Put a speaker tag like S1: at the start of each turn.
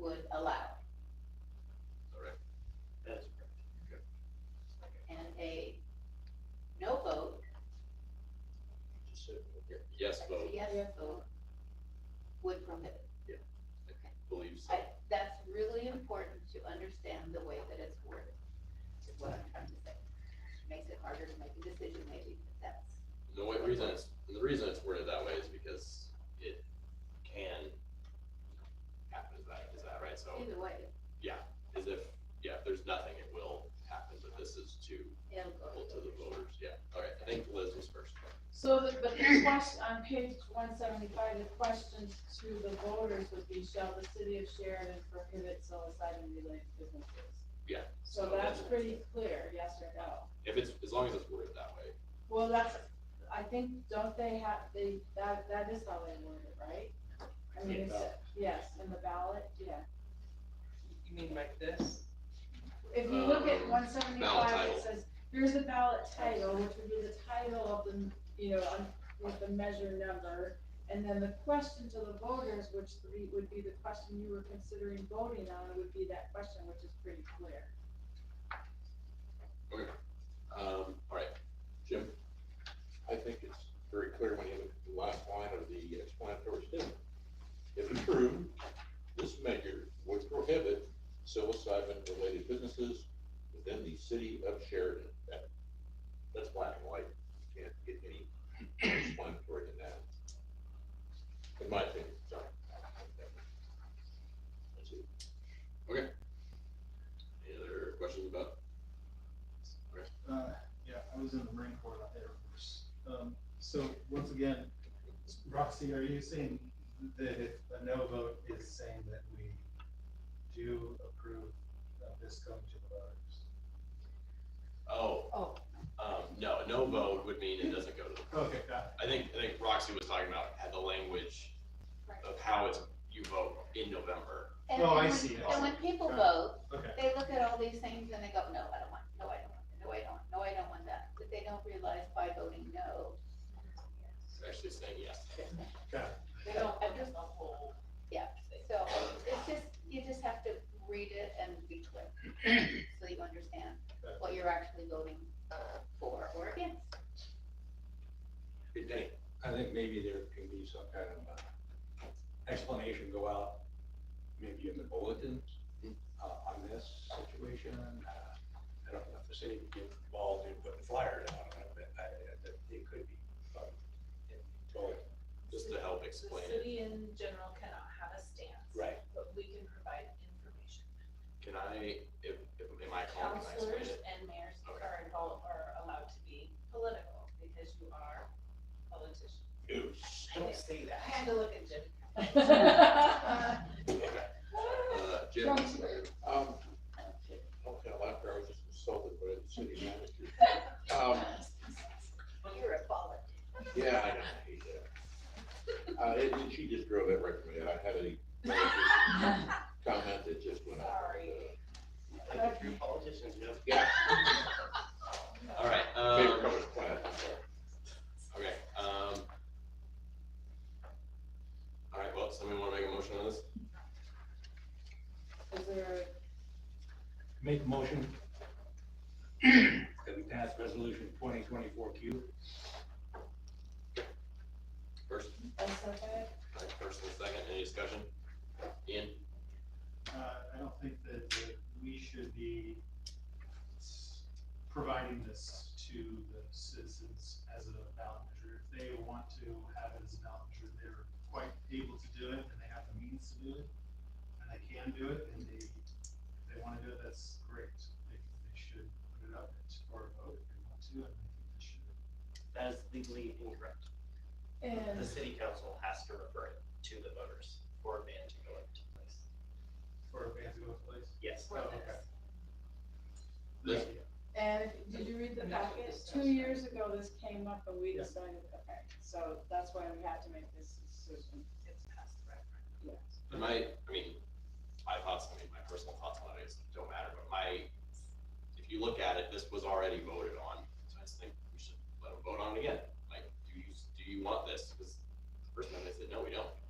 S1: allowed,
S2: Correct.
S3: That is correct.
S1: and a no vote,
S3: Just so-
S2: Yes
S1: a
S2: vote,
S1: yes vote would prohibit.
S2: believe so.
S1: I, that's really important to understand the way that it's worded, is what I'm trying to say. Makes it harder to make a decision maybe, but that's,
S2: And The way, reason it's, and the reason it's worded that way is because it can happen, is that, is that right? So,
S1: either way,
S2: is if, yeah, if there's nothing, it will happen, but this is to,
S1: it'll go.
S2: well, to the voters, yeah. All right, I think Liz was first.
S4: So the, but the question, on page one seventy-five, the question to the voters would be, shall the city of Sheridan prohibit psilocybin related businesses?
S2: Yeah.
S4: So that's pretty clear, yes or no.
S2: If it's, as long as it's worded that way,
S4: Well, that's, I think, don't they have, they, that, that is how they word it, right? I mean, it's, yes, in the ballot, yeah.
S5: You mean like this?
S4: If you look at
S2: Um,
S4: one seventy-five,
S2: title.
S4: it says, here's the ballot title, which would be the title of the, you know, on- with the measure number. And then the question to the voters, which three would be the question you were considering voting on, would be that question, which is pretty clear.
S2: um, all right, Jim,
S6: I think it's very clear when you look at the last line of the explanatory statement. If approved, this measure would prohibit psilocybin-related businesses within the city of Sheridan. That- That's black and white. You can't get any explanatory in that. In my opinion, sorry. That's it.
S2: any other questions about?
S7: Uh, yeah, I was in the Marine Corps, not the Air Force. Um, so once again, Roxy, are you saying that if a no vote is saying that we do approve of this going to the voters?
S2: Oh,
S1: Oh,
S2: um, no, a no vote would mean it doesn't go to the
S7: Okay, got
S2: I think, I think Roxy was talking about had the language
S1: Right.
S2: of how it's, you vote in November.
S1: And
S7: Oh, I
S1: when-
S7: see, I
S1: And when people
S7: Got it.
S1: vote,
S7: it. Okay,
S1: they look at all these things and they go, no, I don't want, no, I don't want, no, I don't, no, I don't want that. But they don't realize by voting no,
S2: It's actually saying yes.
S7: got it.
S1: they don't understand the whole. Yeah, so it's just, you just have to read it and be clear, so you understand what you're actually voting for or against.
S2: Good day.
S8: I think maybe there can be some kind of uh, explanation go out, maybe in the bulletin, uh, on this situation. Uh, I don't know if the city would get involved in putting flyers out, on it, but I, I think it could be. um, in- totally.
S2: Just to help explain
S5: The
S2: it.
S5: city in general cannot have a stance.
S8: Right.
S5: But we can provide information.
S2: Can I, if, if, am I calling, can I explain
S5: Counselors
S2: it?
S5: and mayors
S2: Okay.
S5: are involved, are allowed to be political because you are politicians.
S8: Ooh, Don't say
S5: I had to look at Jim.
S2: Uh, Jim,
S6: Um, okay, after I was just insulted by the city manager. Um,
S1: You're a baller.
S6: Yeah, I know, I hate that. Uh, it, it- she just drove that right from me, I had a comment that just went out.
S5: Sorry.
S4: Like
S5: a true politician, Jim.
S6: Yeah,
S2: all right,
S6: favorite
S2: um,
S6: color is plaid, I'm sorry.
S2: okay, um. All right, well, somebody wanna make a motion on this?
S4: Is there,
S8: Make a motion that we pass resolution twenty twenty-four Q.
S2: First,
S4: a second?
S2: like, first and second, any discussion? Ian?
S7: Uh, I don't think that, that we should be s- providing this to the citizens as a ballot measure. If they want to have it as a ballot measure, they're quite able to do it and they have the means to do it. And they can do it and they, if they want to do it, that's great. They, they should put it up for a vote if they want to and I think they should.
S9: That is legally incorrect. The
S4: And,
S9: city council has to refer it to the voters for a ban to go into place.
S7: Or if they have to go to place.
S9: Yes.
S7: Oh, okay.
S2: Liz?
S4: and did you read the packet? Two years ago, this came up and we
S7: Yeah.
S4: decided, okay, so that's why we had to make this decision.
S5: It's past the referendum.
S2: And my, I mean, my thoughts, I mean, my personal thoughts on it is don't matter, but my, if you look at it, this was already voted on. So I just think we should let them vote on it again. Like, do you, do you want this? Because the first time they said, no, we don't.